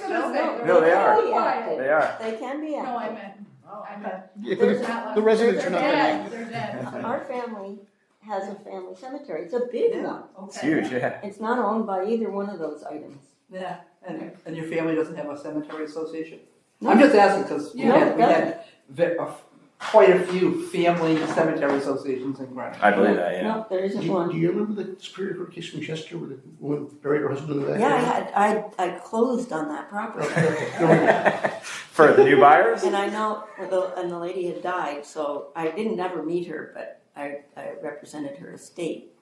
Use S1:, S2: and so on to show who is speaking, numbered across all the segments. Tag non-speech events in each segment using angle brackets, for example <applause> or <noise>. S1: They
S2: No, they
S1: can
S2: are.
S1: be active.
S2: They are.
S1: They can be
S3: No, I
S1: active.
S3: meant,
S4: Oh,
S3: I
S4: okay.
S3: meant.
S5: Yeah,
S3: there's
S5: the-
S3: not
S5: the
S3: one-
S5: residents are not
S3: They're
S5: gonna,
S3: dead, they're dead.
S1: Our family has a family cemetery. It's a big
S4: Yeah.
S1: one.
S2: It's
S4: Okay.
S2: huge, yeah.
S1: It's not owned by either one of those items.
S4: Yeah, and, and your family doesn't have a cemetery association? I'm just asking, because we
S3: Yeah.
S4: had, we had ve- a f- quite a few family cemetery associations in Greenwich.
S2: I believe that, yeah.
S1: No, there isn't
S5: do, do
S1: one.
S5: you remember the Superior Court case from Chester where the woman buried her husband in the back?
S1: Yeah, I had, I, I closed on that property.
S2: For the new buyers?
S1: And I know, the- and the lady had died, so I didn't ever meet her, but I, I represented her estate.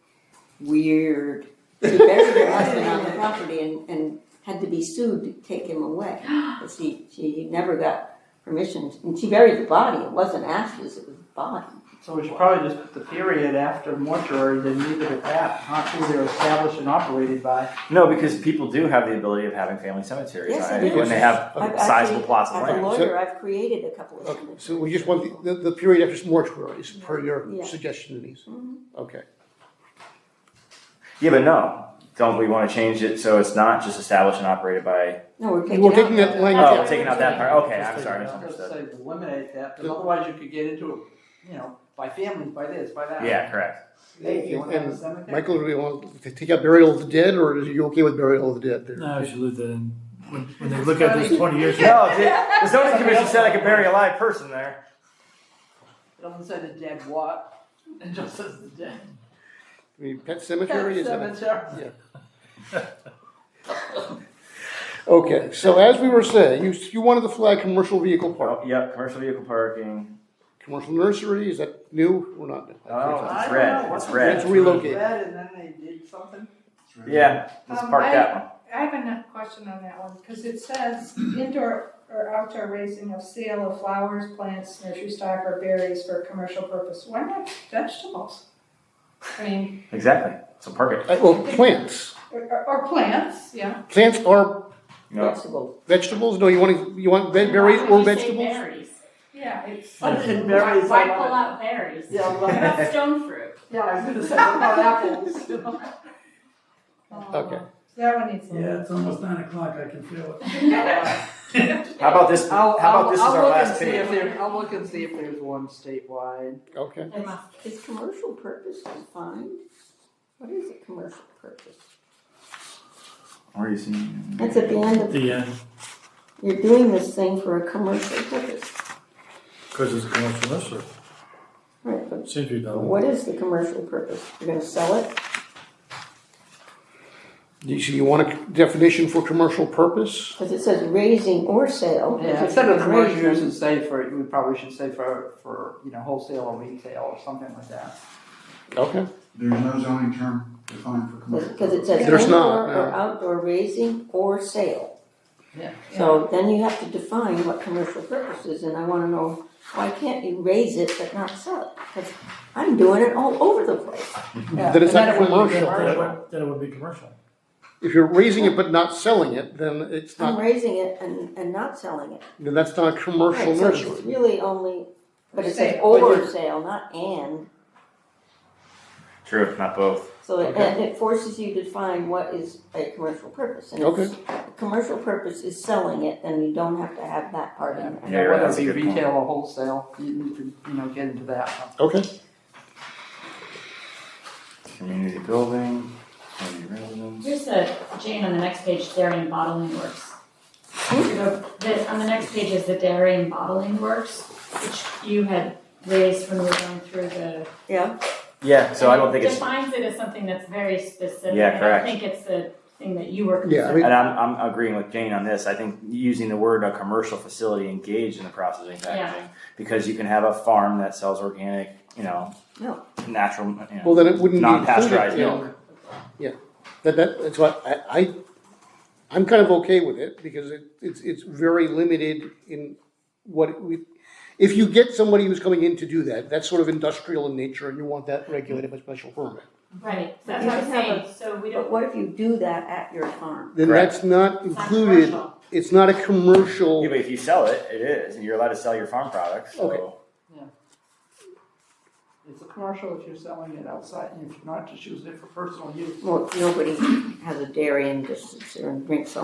S1: Weird. She buried her husband on the property and, and had to be sued to take him away. But She, she never got permission, and she buried the body, it wasn't ashes, it was body.
S4: So we should probably just put the period after mortuary, then leave it at that, not who they're established and operated by.
S2: No, because people do have the ability of having family cemeteries.
S1: Yes,
S2: I
S1: they
S2: think
S1: do.
S2: When they have
S1: I've
S2: sizable
S1: actually-
S2: plots of
S1: As a
S2: land.
S1: lawyer, I've created a couple of
S5: Okay,
S1: cemeteries.
S5: so we just want the, the period after mortuary is per
S1: Yeah. Mm-hmm.
S5: your suggestion, Denise? Okay.
S2: Yeah, but no, don't we want to change it so it's not just established and operated by,
S1: No, we're taking
S5: We're taking
S1: out.
S5: that language
S2: oh,
S5: out.
S2: taking out that part, okay,
S5: Just
S2: I'm
S5: take
S2: sorry,
S5: it out.
S4: I'll just
S2: misunderstood.
S4: say eliminate that, because otherwise you could get into, a you know, by families, by this, by that.
S2: Yeah, <laughs> correct.
S4: Hey, if you wanna have a
S5: And
S4: cemetery.
S5: Michael, do you want to take out burial of the dead, or are you okay with burial of the dead there?
S6: No, I should leave that in. When, when they look at this 20 years ago,
S2: No, the the zoning commission said I could bury a live person there.
S4: It doesn't say the dead what, <laughs> it just says the dead.
S5: I mean, pet cemetery is that?
S4: Cemetery.
S5: Okay, so as we were saying, you, you wanted to flag commercial vehicle park,
S2: Well, Yep, commercial vehicle parking,
S5: commercial nursery, is that new or not?
S2: Oh.
S4: I don't
S2: red,
S4: know,
S2: it's
S4: wasn't
S2: red.
S4: it
S5: It's relocated.
S4: Red, and then they did <laughs> something.
S2: yeah, let's
S3: Um,
S2: park
S3: I-
S2: that one.
S3: I have another question on that one, because it says indoor or outdoor raising of sale of flowers, plants, nursery stock, or berries for commercial purpose. Why not vegetables? I mean,
S2: Exactly, so park it.
S5: Uh, Well, plants,
S3: or, or- or plants, yeah.
S5: plants are
S2: No,
S1: Flexible.
S5: vegetables, no, you want, to you want ve- berries or vegetables?
S3: Yeah, it's.
S4: But in
S7: Why
S4: berries,
S7: why
S4: I
S7: pull
S4: love it.
S7: out berries?
S4: Yeah, I
S7: What
S4: love it.
S7: about stone fruit?
S4: Yeah, I was gonna say, what about <laughs> apples?
S5: Okay.
S3: uh, That one needs. a little-
S8: Yeah, it's almost nine o'clock, I can feel it.
S2: how about <laughs> this, how
S4: I'll,
S2: about this is
S4: I'll, I'll look
S2: our
S4: and
S2: last
S4: see
S2: page?
S4: if there, I'll look and see if there's one statewide.
S5: Okay,
S7: <laughs> They must-
S1: Is commercial purpose defined? What is a commercial purpose?
S2: Where are you seeing?
S1: That's at the end of,
S6: the end,
S1: you're doing this thing for a commercial purpose.
S6: because it's a commercial nursery.
S1: Right, but
S6: Seems to be done.
S1: what is the commercial purpose? You're gonna sell it?
S5: you, so you want a definition for commercial purpose?
S1: Because it says raising or sale.
S4: Yeah, instead of commercial use, and say for, we probably should say for, for, you know, wholesale or retail or something like that.
S5: Okay,
S8: There's no zoning term defined for commercial.
S1: Because it says
S5: There's not,
S1: indoor or
S5: no.
S1: outdoor raising or sale.
S4: Yeah.
S1: So then you have to define what commercial purpose is, and I wanna know, why can't you raise it but not sell it? Because I'm doing it all over the place.
S5: then it's
S4: And then it would
S5: not
S4: be
S5: commercial.
S6: Then it
S4: commercial.
S6: would- then it would be commercial.
S5: If you're raising it but not selling it, then it's
S1: I'm
S5: not,
S1: raising it and, and not selling it.
S5: then that's not a commercial
S1: Right, so It's
S5: nursery.
S1: really only, but it says
S3: Sale.
S1: or sale, not and.
S2: True, not both.
S1: So it,
S5: Okay.
S1: and it forces you to define what is a commercial purpose. And if a commercial purpose is selling it, then you don't have to have that part in there.
S2: Yeah, you're right,
S4: Whether
S2: that's
S4: it
S2: a
S4: be
S2: good point.
S4: retail or wholesale, you need to, you know, get into that.
S5: Okay,
S2: Community building, community residence.
S7: Here's the, Jane, on the next page, dairy and bottling works. You go- the- on the next page is the dairy and bottling works, which you had raised when we were going through the.
S1: Yeah,
S2: Yeah, so I don't think it's,
S7: Defines it as something that's very specific.
S2: Yeah,
S7: and
S2: correct.
S7: I think it's the thing that you were
S5: Yeah, I mean-
S7: concerned.
S2: and I'm, I'm agreeing with Jane on this. I think using the word a commercial facility engaged in the processing and packaging because you can have a farm that sells organic, you know,
S1: No.
S2: natural, you know,
S5: well, then it wouldn't be
S2: non-pasteurized
S5: included, yeah.
S2: milk.
S5: That, that, that's why I, I, I'm kind of okay with it, because it, it's, it's very limited in what we, if you get somebody who's coming in to do that, that's sort of industrial in nature, and you want that regulated by special permit.
S7: Right, so that's
S1: You
S7: what I'm
S1: can have
S7: saying, so we
S1: but
S7: don't.
S1: what if you do that at your farm?
S5: Then
S2: Correct.
S5: that's not
S7: it's not
S5: included,
S7: commercial.
S5: it's not a
S2: Yeah,
S5: commercial,
S2: but if you sell it, it is, and you're allowed to sell your farm products,
S5: Okay.
S2: so.
S4: It's a commercial if you're selling it outside, and if you're not, just using it for personal use.
S1: Well, nobody has a dairy and just sits there and drinks